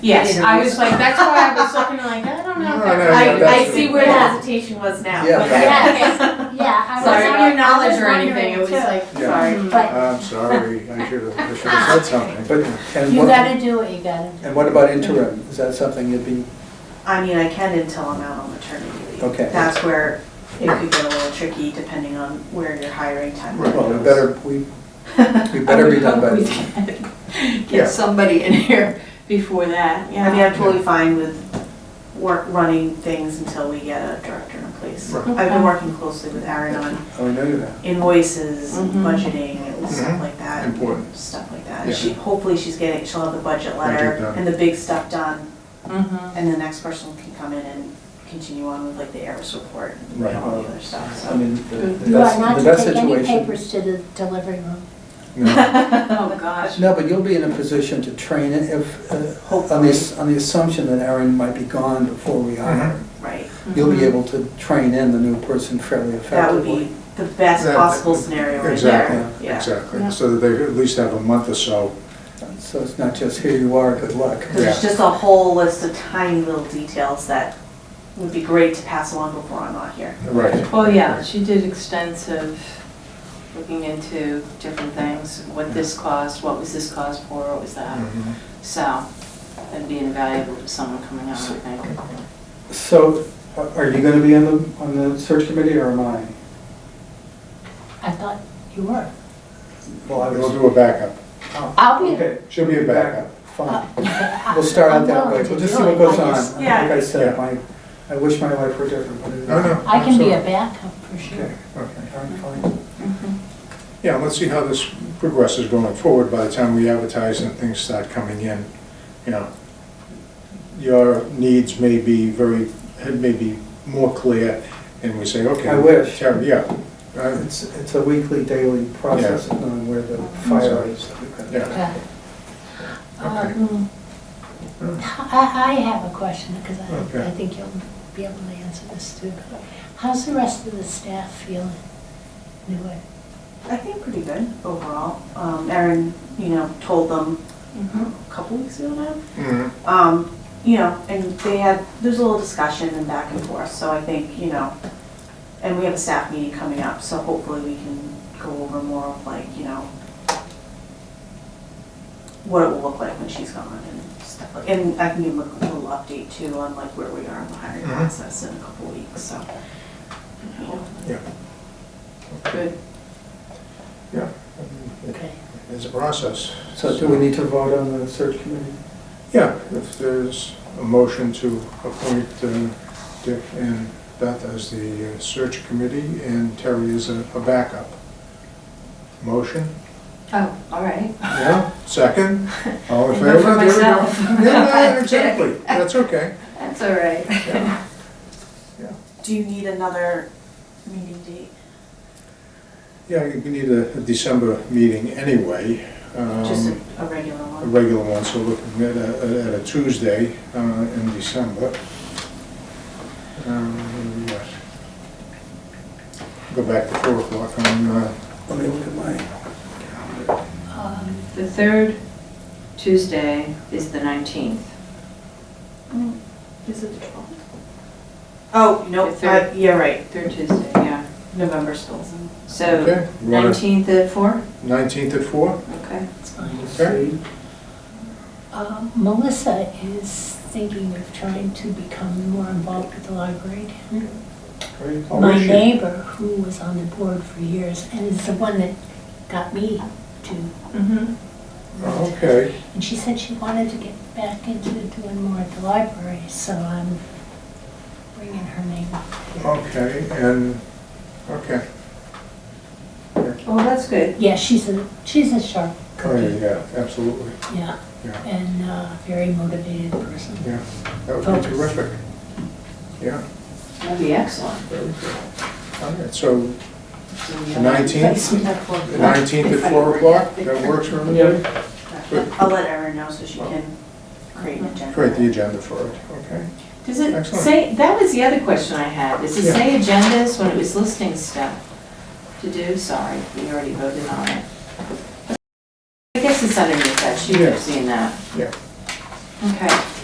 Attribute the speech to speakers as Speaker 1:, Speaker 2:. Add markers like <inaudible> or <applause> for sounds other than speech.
Speaker 1: Yes, I was
Speaker 2: interviews.
Speaker 1: like, that's why I was looking like, I don't know. if
Speaker 3: No,
Speaker 1: that's-
Speaker 3: no, no,
Speaker 1: I, I
Speaker 3: that's-
Speaker 1: see where the
Speaker 4: Yeah.
Speaker 1: hesitation was now.
Speaker 3: Yeah,
Speaker 1: but-
Speaker 2: <laughs>
Speaker 4: Yeah, yeah. I was-
Speaker 1: Sorry, not your
Speaker 4: I was- I was
Speaker 1: knowledge or anything,
Speaker 4: wondering
Speaker 1: it was
Speaker 4: too.
Speaker 1: like,
Speaker 3: Yeah.
Speaker 1: sorry.
Speaker 4: But
Speaker 3: I'm sorry, I should have, I should
Speaker 2: Ah,
Speaker 3: have said something. But, and
Speaker 4: you
Speaker 3: what,
Speaker 4: gotta do what you gotta do.
Speaker 3: and what about interim? Is that something you'd be,
Speaker 1: I mean, I can until I'm out on maternity leave.
Speaker 3: Okay.
Speaker 1: That's where it could get a little tricky depending on where your hiring time
Speaker 3: well, we
Speaker 1: goes. <laughs>
Speaker 3: better, we, we better be done by
Speaker 2: I would
Speaker 3: then.
Speaker 2: hope oh, we could <laughs>
Speaker 3: Yeah.
Speaker 2: Get somebody in here before that,
Speaker 1: I mean,
Speaker 2: yeah.
Speaker 1: I'm totally fine with work, running things until we get a director in place.
Speaker 3: Right.
Speaker 1: I've been working closely with Aaron on
Speaker 3: Oh, I know that.
Speaker 1: invoices,
Speaker 2: Mhm.
Speaker 4: Mm-hmm.
Speaker 1: budgeting, and stuff
Speaker 3: Mhm.
Speaker 1: like that.
Speaker 3: Important.
Speaker 1: Stuff like that.
Speaker 3: Yeah.
Speaker 1: She, hopefully she's getting, she'll have the budget letter
Speaker 3: Budget done.
Speaker 1: and the big stuff done.
Speaker 2: Mhm.
Speaker 1: And the next person can come in and continue on with like the ARIS report and
Speaker 3: Right.
Speaker 1: all the other stuff, so.
Speaker 3: I mean, the the
Speaker 4: You are not
Speaker 3: best, the
Speaker 4: to
Speaker 3: best
Speaker 4: take any
Speaker 3: situation.
Speaker 4: papers to the delivery room.
Speaker 3: No.
Speaker 2: Oh, gosh.
Speaker 3: No, but you'll be in a position to train it if, uh, on the, ass- on the assumption that Aaron might be gone before we hire. him.
Speaker 1: Right,
Speaker 4: Mm-hmm.
Speaker 3: You'll be able to train in the new person fairly
Speaker 1: that would
Speaker 3: effectively.
Speaker 1: be the best
Speaker 5: That-
Speaker 1: possible scenario right there,
Speaker 3: Exactly,
Speaker 1: yeah.
Speaker 2: Yeah.
Speaker 5: Exactly, so that they at least have a month or so.
Speaker 3: So it's not just here you are, good luck.
Speaker 1: Because there's
Speaker 5: Yeah.
Speaker 1: just a whole list of tiny little details that would be great to pass along before I'm not here.
Speaker 5: Right.
Speaker 2: Well, Oh, yeah, she did extensive looking into different things, what this cost, what was this cost for, what was that?
Speaker 5: Mm-hmm.
Speaker 2: So, that'd be invaluable to someone coming out, I think.
Speaker 3: So a- are you going to be on the, on the search committee or am I?
Speaker 4: I thought you were.
Speaker 3: Well, I
Speaker 5: We'll
Speaker 3: was.
Speaker 5: do a backup.
Speaker 4: I'll be, Uh,
Speaker 3: Okay.
Speaker 5: She'll be a backup.
Speaker 3: Fine. We'll start out that way. We'll just see what goes on. Like
Speaker 1: Yeah.
Speaker 3: I said,
Speaker 5: Yeah.
Speaker 3: my, I wish my life were different, but it isn't.
Speaker 5: No, no.
Speaker 4: I can be a backup for sure.
Speaker 3: Okay, okay, all right, fine.
Speaker 5: Yeah, let's see how this progresses going forward by the time we advertise and things start coming in, you know. Your needs may be very, may be more clear, and we say, okay.
Speaker 3: I wish.
Speaker 5: Terry, Yeah, Uh,
Speaker 3: It's, it's a weekly, daily process of knowing where the fire is.
Speaker 5: yeah.
Speaker 4: Okay.
Speaker 5: Okay.
Speaker 4: Um, I, I have a question, because I,
Speaker 5: Okay.
Speaker 4: I think you'll be able to answer this too. How's the rest of the staff feeling? Anyway,
Speaker 1: I think pretty good overall. Um, Erin, you know, told them
Speaker 2: Mhm.
Speaker 1: a couple weeks ago now.
Speaker 3: Mm-hmm.
Speaker 5: Mhm.
Speaker 1: Um, you know, and they had, there's a little discussion and back and forth, so I think, you know, and we have a staff meeting coming up, so hopefully we can go over more of like, you know, what it will look like when she's gone and stuff like, and I can give them a little update too on like where we are in the hiring
Speaker 5: Mhm.
Speaker 1: process in a couple weeks, so. you know.
Speaker 2: Good.
Speaker 4: okay.
Speaker 5: It's a process.
Speaker 3: So do we need to vote on the search committee?
Speaker 5: Yeah, if there's a motion to appoint uh, Dick and Beth as the uh, search committee and Terry as a a backup. Motion?
Speaker 2: Oh, all right.
Speaker 5: Yeah, second?
Speaker 2: <laughs>
Speaker 5: All in
Speaker 2: I vote
Speaker 5: favor?
Speaker 2: for
Speaker 5: There we go.
Speaker 2: myself. <laughs>
Speaker 5: Yeah, yeah, exactly, that's okay.
Speaker 2: That's all right.
Speaker 5: Yeah.
Speaker 1: Do you need another meeting date?
Speaker 5: Yeah, you need a a December meeting anyway. um,
Speaker 1: Just a a regular
Speaker 5: A
Speaker 2: Um,
Speaker 1: one?
Speaker 5: regular one, so looking at a at a Tuesday uh, in December. Um, yes. Go back to 4 o'clock on uh,
Speaker 3: Let me look at my,
Speaker 4: Um,
Speaker 2: The third Tuesday is the 19th.
Speaker 1: Mm, Is it the twelfth? Oh,
Speaker 2: The
Speaker 1: nope,
Speaker 2: third.
Speaker 1: I- yeah, right,
Speaker 2: Third Tuesday, yeah.
Speaker 1: November spills in.
Speaker 2: So
Speaker 5: Okay, you wanna-
Speaker 2: 19th at 4?
Speaker 5: 19th at 4?
Speaker 2: Okay.
Speaker 4: it's fine.
Speaker 3: let's
Speaker 5: Okay.
Speaker 3: see.
Speaker 4: Uh, Melissa is thinking of trying to become more involved with the library. down there.
Speaker 3: Great.
Speaker 5: Oh,
Speaker 4: My
Speaker 5: is she?
Speaker 4: neighbor, who was on the board for years, and is the one that got me to
Speaker 2: Mm-hmm.
Speaker 5: Okay,
Speaker 4: And she said she wanted to get back into doing more at the library, so I'm bringing her name up.
Speaker 5: okay, and, okay.
Speaker 2: Well, Oh, that's good.
Speaker 4: Yeah, she's a, she's a sharp
Speaker 5: Oh,
Speaker 4: cookie,
Speaker 5: yeah, absolutely,
Speaker 4: yeah,
Speaker 5: Oh, yeah,
Speaker 4: and a very motivated person.
Speaker 5: yeah. That would be terrific. Yeah,
Speaker 2: That'd be excellent.
Speaker 5: very good. All right, so
Speaker 2: So we
Speaker 5: the
Speaker 2: have-
Speaker 5: 19th, the 19th at 4 o'clock, that works for everybody? Good.
Speaker 1: I'll let Erin know so she can create an agenda.
Speaker 5: Create the agenda for it, okay?
Speaker 2: Does it
Speaker 5: Excellent.
Speaker 2: say, that was the other question I had, does it
Speaker 5: Yeah.
Speaker 2: say agendas when it was listing stuff to do? Sorry, we already voted on it. I guess it's underneath that, she would have
Speaker 5: Yeah.
Speaker 2: seen that.
Speaker 5: Yeah.
Speaker 2: Okay.